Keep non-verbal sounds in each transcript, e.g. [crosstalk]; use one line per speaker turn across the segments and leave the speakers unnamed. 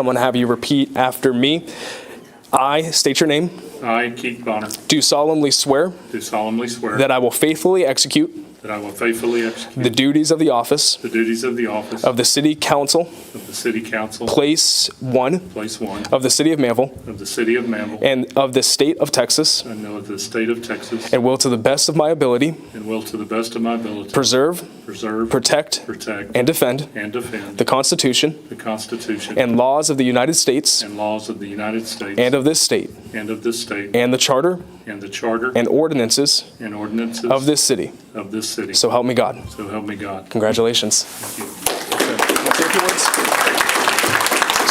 I'm going to have you repeat after me. I state your name,
I, Keith Bonner,
do solemnly swear
do solemnly swear
that I will faithfully execute
that I will faithfully execute
the duties of the office
the duties of the office
of the City Council,
of the City Council,
Place 1
Place 1,
of the City of Manville,
of the City of Mammell,
and of the State of Texas,
and of the State of Texas,
and will to the best of my ability
and will to the best of my ability
preserve,
preserve,
protect,
protect,
and defend
and defend
the Constitution
the Constitution
and laws of the United States
and laws of the United States
and of this state,
and of this state,
and the Charter
and the Charter
and ordinances
and ordinances
of this city.
of this city.
So help me God.
So help me God.
Congratulations.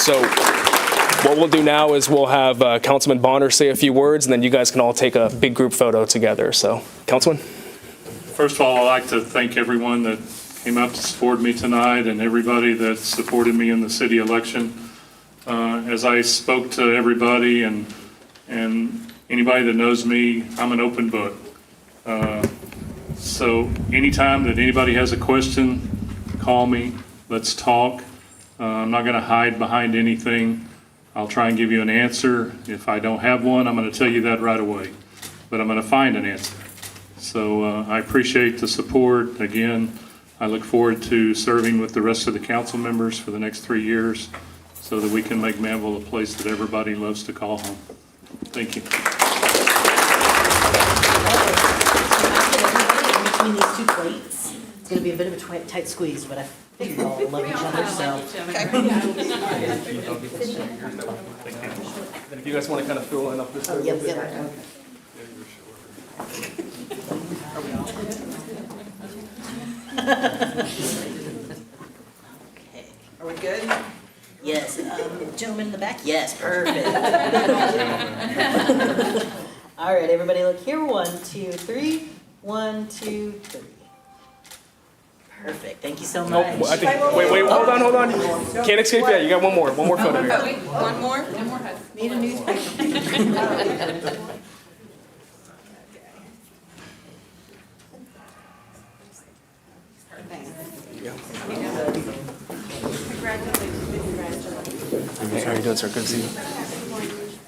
So what we'll do now is we'll have uh, Councilman Bonner say a few words, and then you guys can all take a big group photo together. So, Councilman?
First of all, I'd like to thank everyone that came out to support me tonight and everybody that supported me in the city election. Uh, As I spoke to everybody and, and anybody that knows me, I'm an open book. Uh, So anytime that anybody has a question, call me, let's talk. Uh, I'm not going to hide behind anything. I'll try and give you an answer. If I don't have one, I'm going to tell you that right away, but I'm going to find an answer. So uh, I appreciate the support. Again, I look forward to serving with the rest of the council members for the next three years so that we can make Manville a place that everybody loves to call home. Thank you.
Between these two plates, it's gonna be a bit of a twi- tight squeeze, but I think we all love each other, so.
If you guys want to kind of fill in up this.
Yep, yep. Okay.
[laughs] Are we good?
Yes, um, gentleman in the back, yes,
[laughs]
perfect. All right, everybody look here, one, two, three, one, two, three. Perfect, thank you so much.
I think, wait, wait, hold on, hold on. Can't escape yet. You got one more, one more photo here.
One more? One more. Need a newspaper.
How are you doing, sir? Good to see you.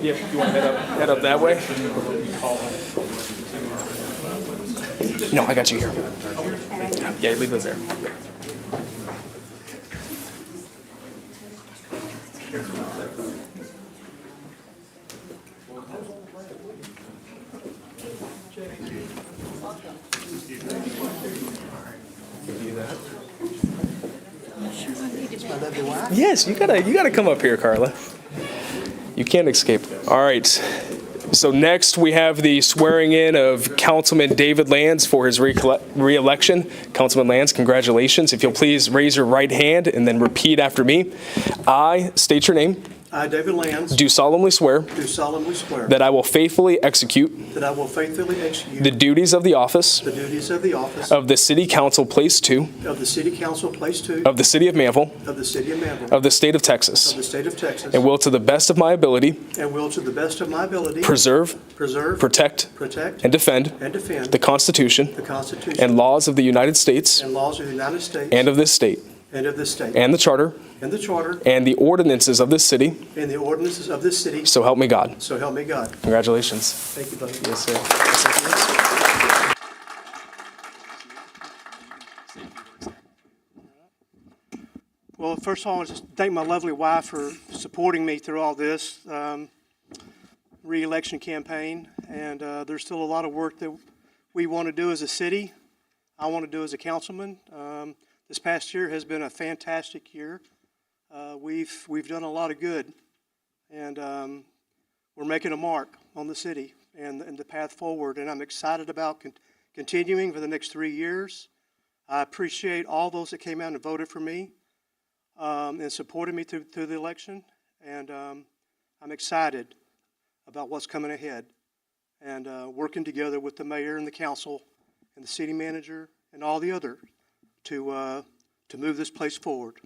Yeah, you want to head up, head up that way? No, I got you here. Yeah, leave those there. Yes, you gotta you gotta come up here, Carla. You can't escape. All right. So next we have the swearing in of Councilman David Lands for his recole- reelection. Councilman Lands, congratulations. If you'll please raise your right hand and then repeat after me. I state your name.
I, David Lands,
Do solemnly swear
do solemnly swear
that I will faithfully execute
that I will faithfully
the
execute
duties of the office
the duties of the office
of the City Council Place 2
of the City Council, Place 2,
of the City of Manville
of the City of Manville,
of the State of Texas
of the State of Texas,
uh, and will to the best of my ability
and will to the best of my ability
preserve,
preserve,
protect,
protect,
and defend
and defend
the Constitution
the
and
Constitution
laws of the United States
and laws of the United States
and of this state,
and of this state,
and the Charter
and the Charter
and the ordinances of this city,
and the ordinances of this city,
so help me God.
so help me God.
Congratulations.
Thank you, buddy.
Yes, sir.
Well, first of all, I want to thank my lovely wife for supporting me through all this um, reelection campaign. And uh, there's still a lot of work that we want to do as a city. I want to do as a councilman. Um, this past year has been a fantastic year. Uh, we've we've done a lot of good, and um, we're making a mark on the city and, and the path forward. And I'm excited about con- continuing for the next three years. I appreciate all those that came out and voted for me um, and supported me through, through the election. And um, I'm excited about what's coming ahead and uh, working together with the mayor and the council and the city manager and all the other to, uh, to move this place forward.